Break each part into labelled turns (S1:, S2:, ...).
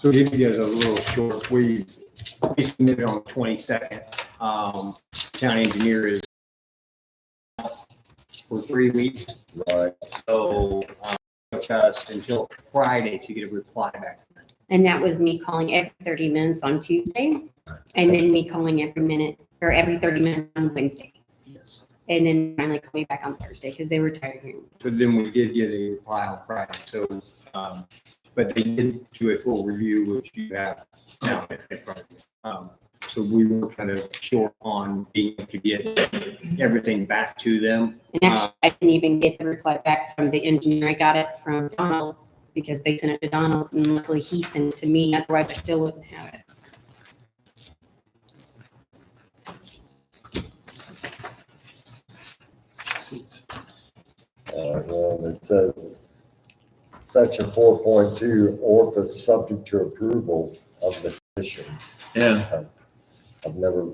S1: So give you guys a little short, we, we submitted on the twenty-second. Um, town engineer is for three weeks,
S2: Right.
S1: so, um, just until Friday to get a reply back.
S3: And that was me calling every 30 minutes on Tuesday and then me calling every minute or every 30 minutes on Wednesday.
S1: Yes.
S3: And then finally call me back on Thursday because they were tired of hearing. me.
S1: So then we did get a reply on Friday, so, um, but they did do a full review, which you have now in front of you. Um, So we were kind of short on being able to get everything back to them.
S3: And actually, I didn't even get the reply back from the engineer. I got it from Donald because they sent it to Donald and luckily he sent it to me. Otherwise I still wouldn't have it.
S2: All right, well, it says, section four point two, ORF is subject to approval of the commission.
S4: Yeah,
S2: I've never,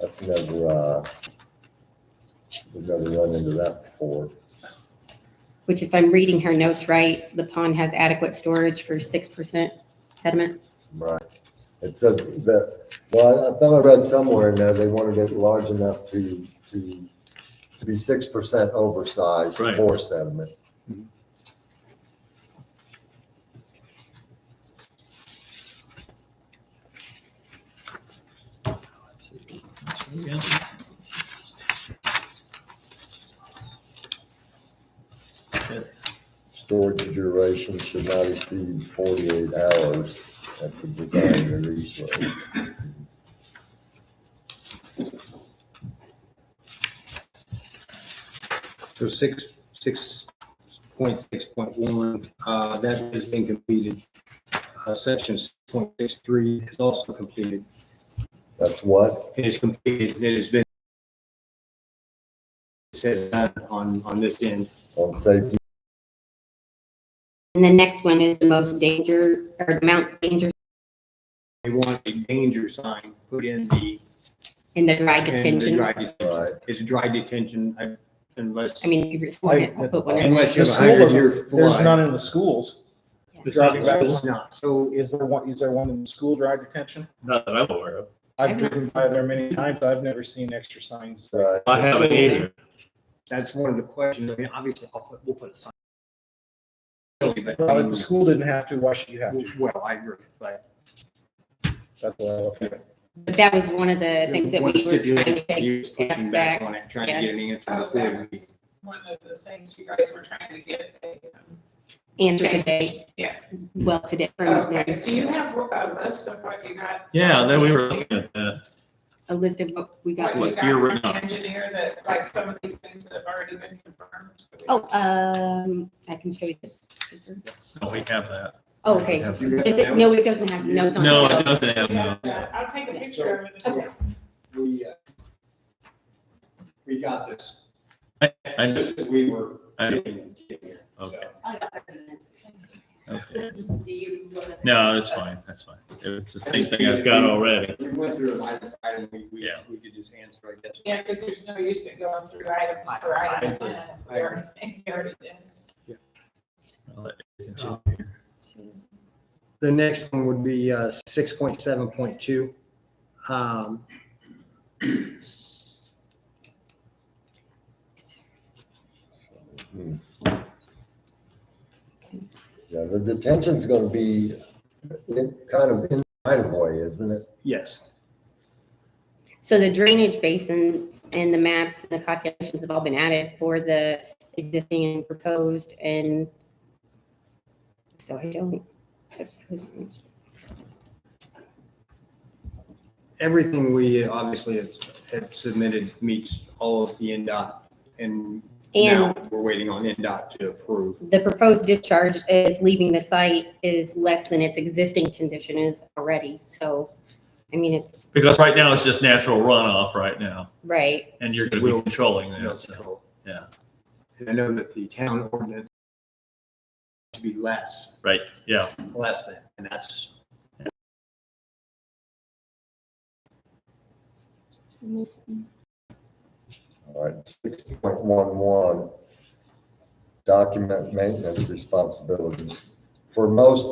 S2: that's never, uh, we've never run into that before.
S3: Which if I'm reading her notes right, the pond has adequate storage for 6% sediment.
S2: Right. It says that, well, I I thought I read somewhere in there, they wanted it large enough to, to, to be six percent oversized
S4: Right.
S2: for sediment. Storage duration should not exceed forty-eight hours at the design release rate.
S1: So six, six point six point one, uh, that has been completed. Uh, section six point six three is also completed.
S2: That's what?
S1: It is completed, it has been. It says done on, on this end.
S2: On safety,
S3: And the next one is the most danger or the Mount Danger
S1: They want a danger sign put in the.
S3: in the dry
S1: in the
S3: detention.
S1: dry detention.
S2: right?
S1: It's dry detention I- unless,
S3: I mean, if you're sworn it, we'll put one in.
S1: unless you
S5: The
S1: have a hundred year
S5: school, there's
S1: flood.
S5: none in the schools.
S4: There's
S5: Driving
S4: none
S5: back.
S4: in the
S1: It's not.
S5: So is there one, is there one in the school drive detention?
S4: Not that I'm aware of.
S3: I've
S5: I've
S3: not
S5: driven
S3: seen
S5: by there many times. I've never seen extra signs.
S2: Right.
S4: I haven't either.
S1: That's one of the questions. I mean, obviously, I'll put, we'll put a sign. But,
S5: Well, if the school didn't have to, why should you have to?
S1: Well, I agree, but.
S5: That's what I look at.
S3: But that was one of the things that we
S1: What's
S3: were
S1: the
S3: trying to
S1: deal?
S3: take.
S1: Years pushing
S3: back.
S1: back on it, trying
S3: Yeah.
S1: to get an answer
S6: Oh,
S1: before
S6: that
S1: we.
S6: was one of the things you guys were trying to get. um,
S3: answer today.
S6: Yeah.
S3: Well, today, from
S6: Okay,
S3: them,
S6: do you have a list of what you got?
S4: Yeah, then we were looking at that.
S3: a list of what we
S6: What
S3: got.
S6: you
S4: What year we're
S6: got from
S4: not.
S6: the engineer that, like, some of these things that have already been confirmed? so we-
S3: Oh, um, I can show you this.
S4: No, we have that.
S3: Oh, Okay.
S4: We have
S1: You
S4: that.
S1: got
S3: Does it,
S1: that
S3: no,
S1: one?
S3: it doesn't have notes on it.
S4: No, it doesn't have no.
S6: Yeah, I'll take a picture of it.
S3: Okay.
S1: We, uh, we got this.
S4: I, I just,
S1: Just as we were.
S4: I-
S1: getting here.
S4: okay,
S3: doesn't.
S4: okay.
S3: Do you?
S4: No, it's fine, that's fine. It's the same thing I've got already.
S1: We went through it line by line, and we, we,
S4: Yeah.
S1: we could just answer, I guess.
S6: Yeah, because there's no use in going through item by item. We already- we already did.
S4: I'll let you continue.
S1: The next one would be uh, six point seven point two. Um,
S2: Hmm. Yeah, the detention's gonna be in, kind of in right of way, isn't it?
S1: Yes,
S3: So the drainage basins and the maps and the calculations have all been added for the existing and proposed and so I don't.
S1: everything we obviously have, have submitted meets all of the NDOT and now
S3: And
S1: we're waiting on NDOT to approve.
S3: the proposed discharge is leaving the site is less than its existing condition is already, so, I mean, it's,
S4: Because right now it's just natural runoff right now,
S3: right,
S4: and you're gonna be
S1: Will-
S4: controlling
S1: No
S4: that, so.
S1: control.
S4: yeah.
S1: And I know that the town ordinance to be less,
S4: Right, yeah.
S1: less than, and that's,
S2: All right, six point one one, document maintenance responsibilities. For most